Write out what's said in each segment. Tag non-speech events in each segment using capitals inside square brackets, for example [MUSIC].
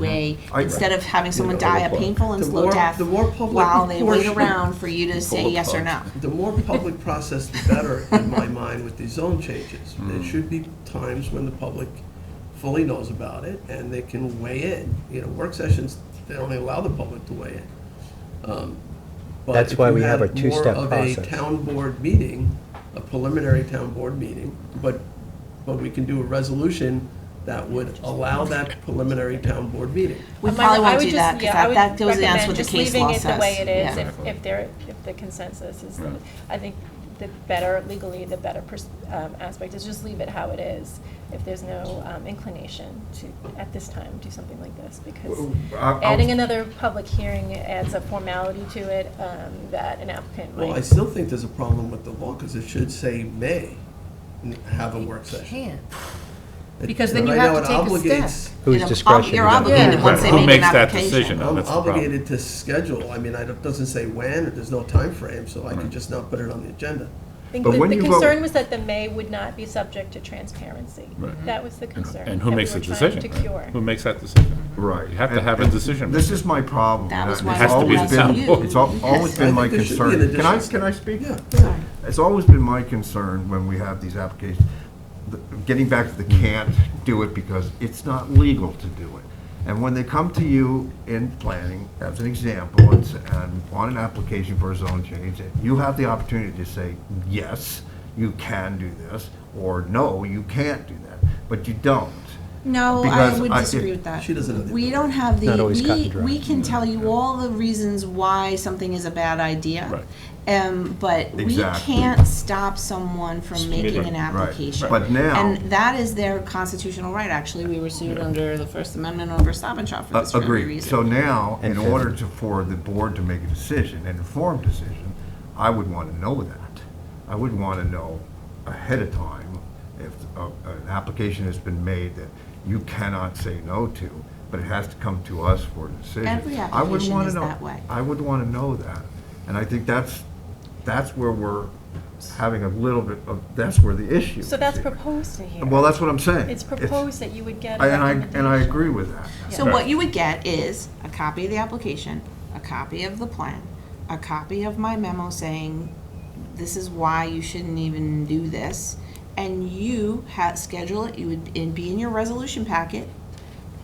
community, I- instead of having someone You know, die a painful and the slow more- death the more public while they wait portion- around for you to say Public yes or no. policy. The more public process, the better, in my [LAUGHS] mind, with these zone changes. Mm. There should be times when the public fully knows about it, and they can weigh in. You know, work sessions, they only allow the public to weigh in. Um, but That's if why you we have had a two-step More process. of a town board meeting, a preliminary town board meeting, but, but we can do a resolution that would allow that preliminary town board meeting. We Um, I probably would- I won't would do just- that, because yeah, I would that goes against recommend what the just case law says. Leaving it the way it is, Yeah. if, if there, if the consensus is, Right. I think the better legally, the better pers- um, aspect is just leave it how it is. If there's no um, inclination to, at this time, do something like this, because Well, I- I'll- adding another public hearing adds a formality to it um, that an applicant Well, I might. still think there's a problem with the law, because it should say may n- have a work session. Can't. It- because then you right have now to it take a step. obligates- Whose You're ob- discretion? You're is it? obligated Yeah. once they Who make an makes that application. decision? No, I'm that's the problem. obligated to schedule, I mean, I don't, doesn't say when, or there's no time frame, so I could just not put it on the agenda. I think But the when the you vote- concern was that the may would not be subject to transparency. Right. That was the concern. And who that we makes the were trying decision? to right? cure. Who makes that decision? Right. You have to And- have a and decision. This is my problem. That was and why it's I always reached been- out to you. It's al- always Yes. been I my think there should be an concern. Can I, addition. can I speak? Yeah. It's always been my concern when we have these applications, the- getting back to the can't do it because it's not legal to do it. And when they come to you in planning, as an example, and s- and want an application for a zone change, you have the opportunity to say, yes, you can do this, or no, you can't do that, but you don't. No, I Because would I- it- disagree with that. She doesn't have the We don't have the, Not always cut we, and dry. we can Mm-hmm. tell you all the reasons why something is a bad idea. Right. Um, but we Exactly. can't stop someone from making an Right. application. But now- And that is their constitutional right, actually. We were sued under the First Amendment over Stop and Shop for Uh, this very Agreed. So reason. now, in And order to, for the board to make a decision, an informed decision, I would want to know that. I would want to know ahead of time if uh, an application has been made that you cannot say no to, but it has to come to us for a decision. Every I would application wanna is know- that way. I would want to know that. And I think that's, that's where we're having a little bit of, that's where the issue is. So that's proposed in here. Well, that's what I'm saying. It's proposed that you would get a I- And I, and I recommendation. agree with that. So what you would get is a copy of the application, a copy of the plan, a copy of my memo saying, this is why you shouldn't even do this. And you ha schedule it, you would, it'd be in your resolution packet,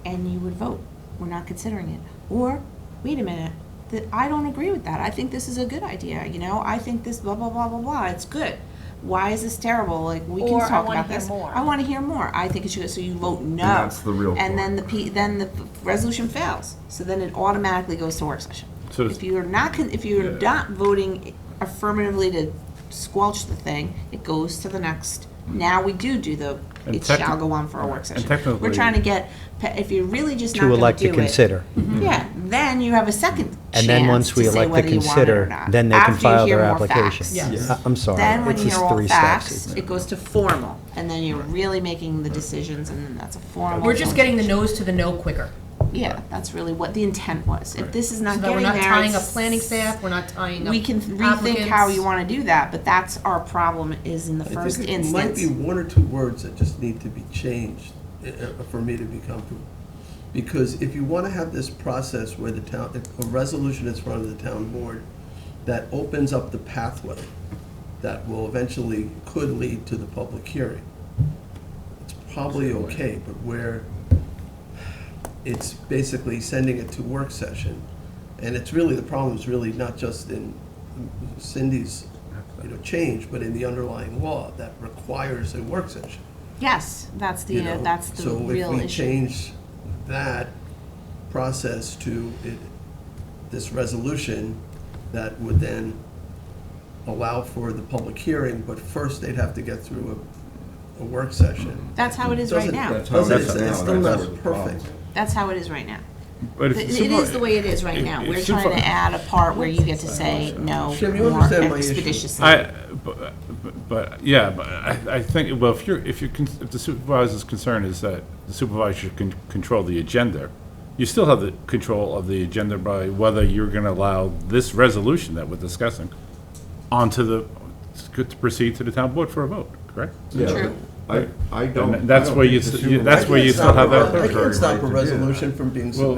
and you would vote, we're not considering it. Or, wait a minute, that, I don't agree with that, I think this is a good idea, you know, I think this blah, blah, blah, blah, blah, it's good. Why is this terrible, like, we can Or, "I talk wanna about hear this. more." I wanna hear more, I think it should, so you vote no. And that's the real And then part. the P, then the resolution fails. So then it automatically goes to work session. So it's- If you're not, con- if you're Yeah. not voting affirmatively to squelch the thing, it goes to the next. Now we do do the, And it techni- shall go on for a work and session. We're technically- trying to get, pe- if you're really just not To gonna do it. Mhm. elect to consider. Yeah, then you have a second And then chance once to we say elect to whether you want it or consider, not. then they can after you file hear their more application. facts. Yeah, I- I'm sorry. Then when it's you hear just all three steps. facts, It's- it goes to formal, and then you're really making the decisions, and then that's a formal. We're just getting the nose to the no quicker. Yeah, that's really what the intent was. If this is So not that we're getting not there, tying up it's- planning staff, we're not tying up we can rethink how you want to do that, but that's our problem is in the I first think it might be instance. one or two words that just need to be changed uh, uh, for me to be comfortable. Because if you want to have this process where the town, if a resolution is front of the town board that opens up the pathway that will eventually, could lead to the public hearing, it's probably okay, but where it's basically sending it to work session, and it's really, the problem is really not just in Cindy's, you know, change, but in the underlying law that requires a work session, Yes, that's you the, know? uh, that's the So real if we issue. change that process to it, this resolution, that would then allow for the public hearing, but first they'd have to get through a, a work session. That's how it is right Doesn't- now. Doesn't- it's- now, it's still that's where not the problem perfect. is. That's how it is right now. But if It it's it super- is the way it is right now. if We're it's trying super- to add a part where you get to say no Jim, you more understand my issue. expeditiously. I, but, but- but, yeah, but I, I think, well, if you're, if you're, con- if the supervisor's concern is that the supervisor can control the agenda, you still have the control of the agenda by whether you're gonna allow this resolution that we're discussing onto the, to proceed to the town board for a vote, correct? Yeah, True. but I, I don't. that's I don't where you think s- the you- that's supervisor- where you I still can't have stop that a- I arbitrary can't stop right a to do that. resolution from being submitted.